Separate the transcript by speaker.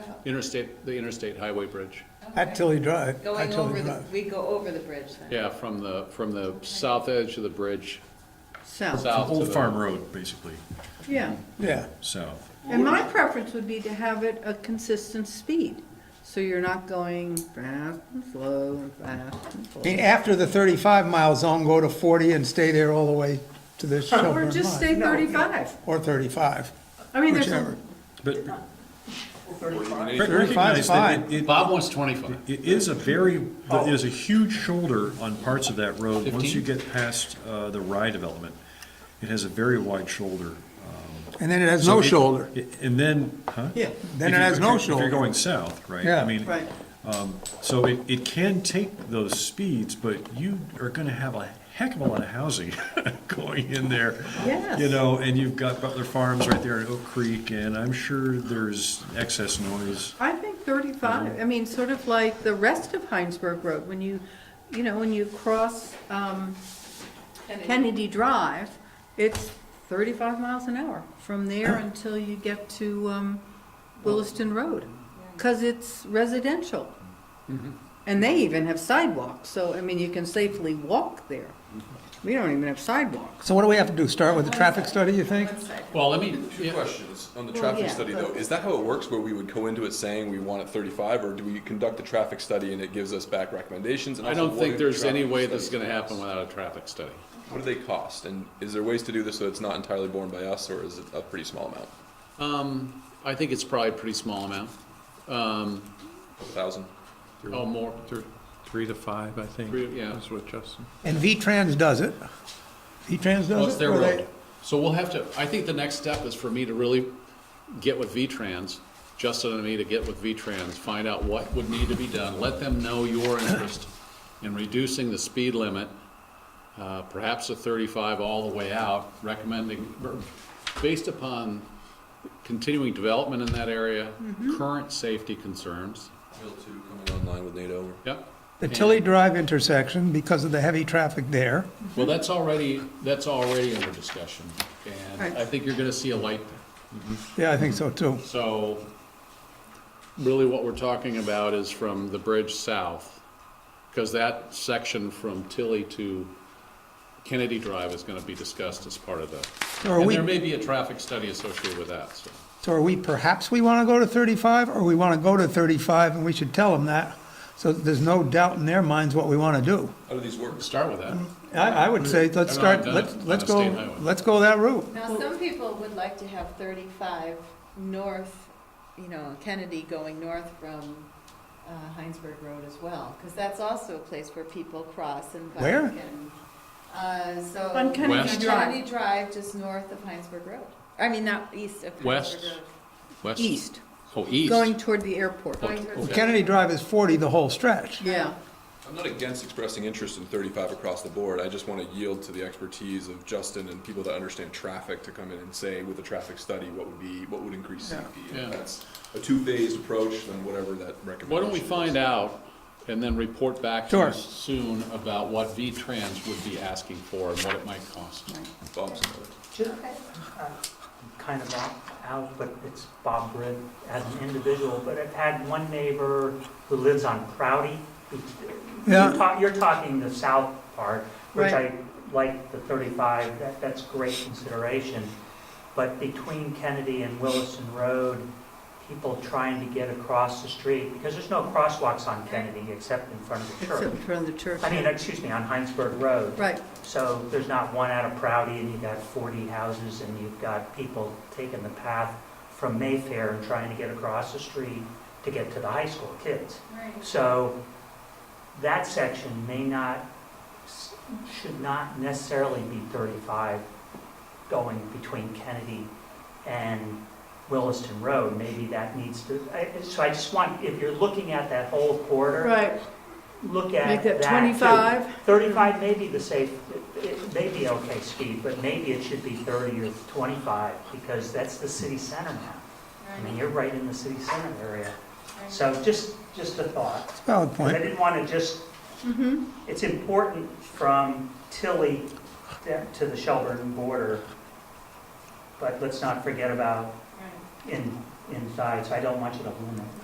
Speaker 1: interstate, the interstate highway bridge.
Speaker 2: At Tilly Drive. at
Speaker 3: Going
Speaker 2: Tilly
Speaker 3: over the,
Speaker 2: Drive.
Speaker 3: we go over the bridge then?
Speaker 1: Yeah, from the, from the south edge of the bridge,
Speaker 4: south,
Speaker 1: south to
Speaker 5: Old
Speaker 1: the-
Speaker 5: Farm Road, basically,
Speaker 4: yeah.
Speaker 2: Yeah,
Speaker 5: south.
Speaker 4: And my preference would be to have it a consistent speed, so you're not going fast and slow and fast and
Speaker 2: I mean,
Speaker 4: slow.
Speaker 2: after the thirty-five mile zone, go to forty and stay there all the way to the
Speaker 4: Or
Speaker 2: Shelburne line.
Speaker 4: just stay thirty-five.
Speaker 2: Or thirty-five,
Speaker 4: I mean, there's,
Speaker 2: whichever.
Speaker 4: a-
Speaker 5: But
Speaker 1: Thirty-five.
Speaker 5: but
Speaker 2: 35 is
Speaker 5: recognize that
Speaker 2: fine.
Speaker 5: it- it-
Speaker 1: Bob wants twenty-five.
Speaker 5: It is a very, it is a huge shoulder on parts of that road. Once you
Speaker 1: Fifteen?
Speaker 5: get past uh, the Rye development, it has a very wide shoulder. um,
Speaker 2: And then it has
Speaker 5: so
Speaker 2: no
Speaker 5: it-
Speaker 2: shoulder.
Speaker 5: it- And then, huh?
Speaker 2: Yeah, then
Speaker 5: If
Speaker 2: it
Speaker 5: you-
Speaker 2: has
Speaker 5: if
Speaker 2: no
Speaker 5: you're- If
Speaker 2: shoulder.
Speaker 5: you're going south, right?
Speaker 2: Yeah.
Speaker 5: I mean,
Speaker 4: right,
Speaker 5: so it, it can take those speeds, but you are gonna have a heck of a lot of housing going in there.
Speaker 4: Yes.
Speaker 5: You know, and you've got Butler Farms right there in Oak Creek, and I'm sure there's excess noise.
Speaker 4: I think thirty-five, I mean, sort of like the rest of Heinsberg Road, when you, you know, when you cross, um, Kennedy Drive, it's thirty-five miles an hour from there until you get to, um, Williston Road, cause it's residential.
Speaker 6: Mm-hmm.
Speaker 4: And they even have sidewalks, so, I mean, you can safely walk there. We don't even have sidewalks.
Speaker 2: So what do we have to do? Start with the traffic study, you think?
Speaker 1: Well, let me,
Speaker 7: Two
Speaker 1: yeah,
Speaker 7: questions on the
Speaker 4: Well,
Speaker 7: traffic
Speaker 4: yeah,
Speaker 7: study,
Speaker 4: but-
Speaker 7: though. Is that how it works, where we would go into it saying we want it thirty-five, or do we conduct the traffic study and it gives us back recommendations? And
Speaker 1: I
Speaker 7: also,
Speaker 1: don't
Speaker 7: what do
Speaker 1: think
Speaker 7: the
Speaker 1: there's any
Speaker 7: traffic
Speaker 1: way this is
Speaker 7: studies
Speaker 1: gonna happen
Speaker 7: cost?
Speaker 1: without a traffic study.
Speaker 7: What do they cost, and is there ways to do this so it's not entirely borne by us, or is it a pretty small amount,
Speaker 1: Um, I think it's probably a pretty small amount. Um,
Speaker 7: a thousand?
Speaker 1: oh, more,
Speaker 8: Three to five, I think,
Speaker 1: Three, yeah.
Speaker 8: is what Justin.
Speaker 2: And V-Trans does it. V-Trans does it?
Speaker 1: Well, Oh, it's their
Speaker 2: or they-
Speaker 1: road. So we'll have to, I think the next step is for me to really get with V-Trans, Justin and me to get with V-Trans, find out what would need to be done, let them know your interest in reducing the speed limit, uh, perhaps a thirty-five all the way out, recommending, based upon continuing development in that area, current safety concerns,
Speaker 7: Bill two coming online with NATO.
Speaker 1: yep.
Speaker 2: The Tilly Drive intersection, because of the heavy traffic there.
Speaker 1: Well, that's already, that's already under discussion, and
Speaker 4: Right.
Speaker 1: I think you're gonna see a light there.
Speaker 2: Yeah, I think so too.
Speaker 1: So really what we're talking about is from the bridge south, because that section from Tilly to Kennedy Drive is gonna be discussed as part of the,
Speaker 2: Are
Speaker 1: and
Speaker 2: we-
Speaker 1: there may be a traffic study associated with that, so.
Speaker 2: So are we, perhaps we want to go to 35, or we want to go to 35, and we should tell them that, so that there's no doubt in their minds what we want to do.
Speaker 7: How do these work?
Speaker 1: Start with that.
Speaker 2: I, I would say, let's
Speaker 1: They're not
Speaker 2: start,
Speaker 1: done
Speaker 2: let's,
Speaker 1: on a
Speaker 2: let's
Speaker 1: state
Speaker 2: go,
Speaker 1: highway.
Speaker 2: let's go that route.
Speaker 3: Now, some people would like to have thirty-five north, you know, Kennedy going north from uh, Heinsberg Road as well, because that's also a place where people cross and bike
Speaker 2: Where?
Speaker 3: and. Uh, so.
Speaker 4: On Kennedy
Speaker 1: West?
Speaker 4: Drive.
Speaker 3: Kennedy Drive, just north of Heinsberg Road. I mean, not east of Heinsberg Road.
Speaker 1: West? West?
Speaker 4: East,
Speaker 1: Oh, east.
Speaker 4: going toward the airport.
Speaker 3: Heinsberg
Speaker 1: Okay.
Speaker 2: Kennedy Drive is 40 the whole stretch.
Speaker 4: Yeah,
Speaker 7: I'm not against expressing interest in thirty-five across the board. I just want to yield to the expertise of Justin and people that understand traffic to come in and say with a traffic study, what would be, what would increase safety?
Speaker 1: Yeah.
Speaker 7: If that's a two-phased approach, then whatever that recommendation
Speaker 1: Why don't we find
Speaker 7: is.
Speaker 1: out and then report back to
Speaker 2: Sure.
Speaker 1: us soon about what V-Trans would be asking for and what it might cost?
Speaker 7: Bob's got it.
Speaker 6: Just uh, kind of out- out, but it's Bob Britt as an individual, but I've had one neighbor who lives on Crowdy. who-
Speaker 2: Yeah.
Speaker 6: You're ta- You're talking the south part, which
Speaker 4: Right.
Speaker 6: I like the 35, that, that's great consideration. But between Kennedy and Williston Road, people trying to get across the street, because there's no crosswalks on Kennedy except in front of the
Speaker 4: except
Speaker 6: church.
Speaker 4: from the church.
Speaker 6: I mean, excuse me, on Heinsberg Road.
Speaker 4: Right,
Speaker 6: So there's not one out of Prouty, and you've got 40 houses, and you've got people taking the path from Mayfair and trying to get across the street to get to the high school kids. So that section may not, should not necessarily be 35 going between Kennedy and Williston Road. Maybe that needs to, I- so I just want, if you're looking at that whole corridor
Speaker 4: right,
Speaker 6: look at
Speaker 4: Make that
Speaker 6: too.
Speaker 4: 25.
Speaker 6: 35 may be the safe, it- it may be okay speed, but maybe it should be 30 or 25, because that's the city center now. I mean, you're right in the city center area. So just, just a thought.
Speaker 2: Valid
Speaker 6: I
Speaker 2: point.
Speaker 6: didn't want to just,
Speaker 4: Mm-hmm.
Speaker 6: it's important from Tilly da- to the Shelburne border, but let's not forget about in, inside, so I don't want you to limit.